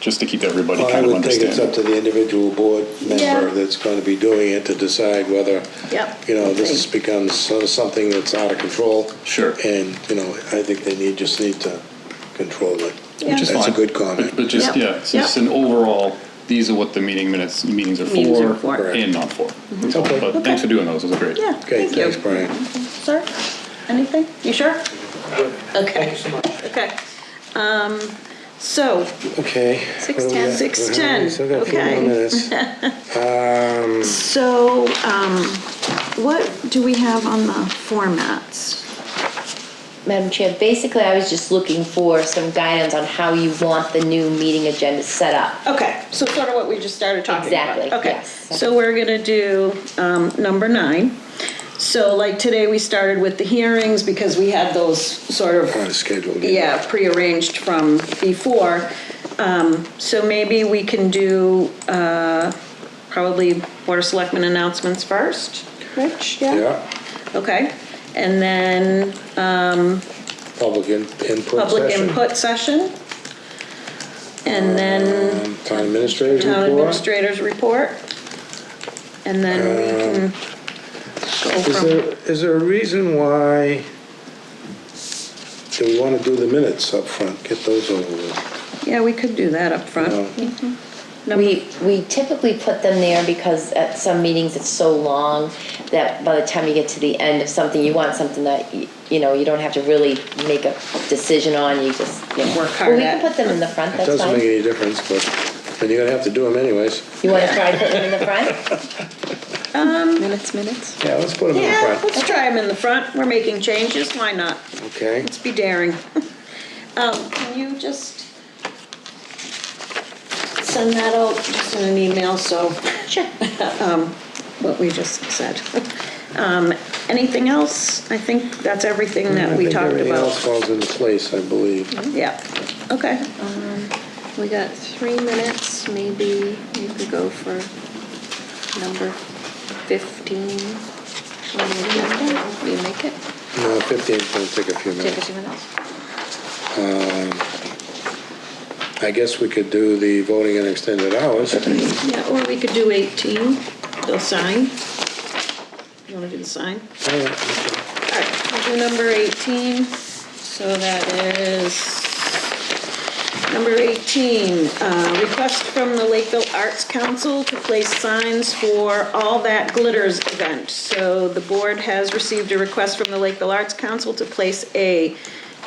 just to keep everybody Well, I kind of would think it's up understanding. to the individual board Yeah. member that's going to be doing it to decide whether, Yep. you know, this becomes so- something that's out of control. Sure. And, you know, I think they need, just need to control it. Which Which is That's a fine. good comment. But- But just, Yep. yeah, it's just Yep. an overall, these are what the meeting minutes, meetings are Meetings are for for. and not for. So, Okay. But thanks for doing those, those are great. Yeah, Okay, thank thanks, you. Brian. Sir, anything? You sure? Okay, so much. okay. Um, So, Okay. Six ten. Six ten, Still got a few okay. more minutes. Um, so um, what do we have on the formats? Madam Chair, basically, I was just looking for some guidance on how you want the new meeting agenda set up. Okay, so sort of what we just started talking about. Exactly, Okay, yes. so we're gonna do um, number nine. So like today, we started with the hearings because we had those sort of On schedule. yeah, prearranged from before. Um, So maybe we can do uh, probably Board of Selectmen announcements first, Rich? Yeah, Okay, and then public in- input public session. input session. And then Um, Town administrator's town report. administrator's report. And then we can Uh, Is go there, is there a reason why, do we want to do the minutes up front? Get those over with. from, yeah, we could do that up you front. know? Mm-hmm. We, we typically put them there because at some meetings, it's so long that by the time you get to the end of something, you want something that, y- you know, you don't have to really make a decision on, you just, you know. Work hard Well, we at. can put them in the front, It that's doesn't fine. make any difference, but, and you're going to have to do them anyways. You want to try to put them in the front? Minutes, minutes. Yeah, let's put them in Yeah, front. let's try them in the front. We're making changes, why not? Okay, Let's be daring. Um, Can you just send that out just in an email, so Um, Sure. what we just said? Um, Anything else? I think that's everything I that we think talked everything else about. falls into place, I believe. Yeah, okay. Um, We got three minutes, maybe you could go for number 15. on the agenda. Will you make it? No, 15's going to take a few Take a minutes. Um, few minutes. I guess we could do the voting in extended hours. Yeah, or we could do 18, the sign. You want to do the sign? All right, we'll do number 18, so that is, number 18, uh, request from the Lakeville Arts Council to place signs for All That Glitters event. So the board has received a request from the Lakeville Arts Council to place a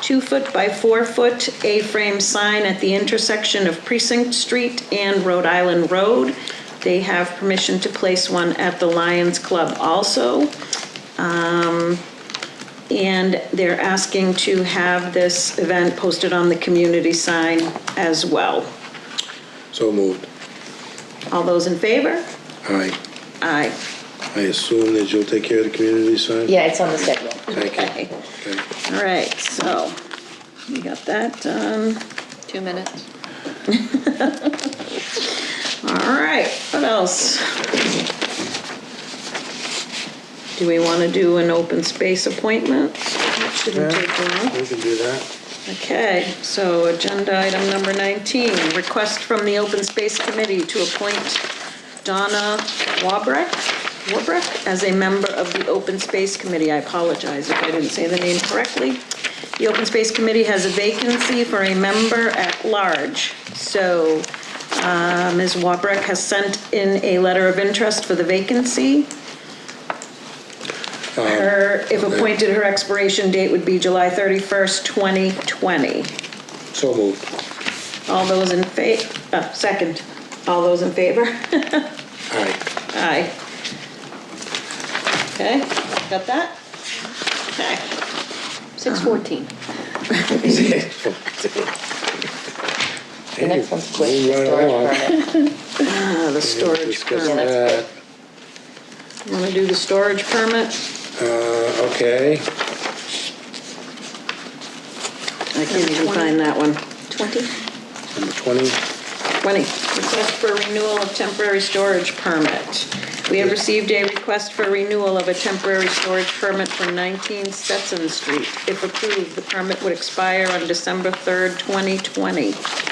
two-foot by four-foot A-frame sign at the intersection of Precinct Street and Rhode Island Road. They have permission to place one at the Lions Club also. And they're asking to have this event posted on the community sign as well. So moved. All those in favor? Aye. Aye. I assume that you'll take care of the community sign? Yeah, it's on the schedule. Thank you. Okay. Okay. All right, so we got that done. Two minutes. All right, what else? Do we want to do an open space appointment? That shouldn't take long. We can do that. Okay, so agenda item number 19, request from the Open Space Committee to appoint Donna Wabrick, Wabrick as a member of the Open Space Committee. I apologize if I didn't say the name correctly. The Open Space Committee has a vacancy for a member at large. So uh, Ms. Wabrick has sent in a letter of interest for the vacancy. Um, Her, if appointed, her expiration date would be July 31st, 2020. So moved. All those in fa, uh, second, all those in favor? Aye. Aye. Okay, got that? Okay. 6:14. The next one's quick, Hey, move right along. Uh, storage permit. the We'll storage discuss permit. that. Want to do the storage permit? Uh, okay. I can't even find that one. 20? Number 20. 20, request for renewal of temporary storage permit. We have received a request for renewal of a temporary storage permit for 19 Stetson Street. If approved, the permit would expire on December 3rd, 2020.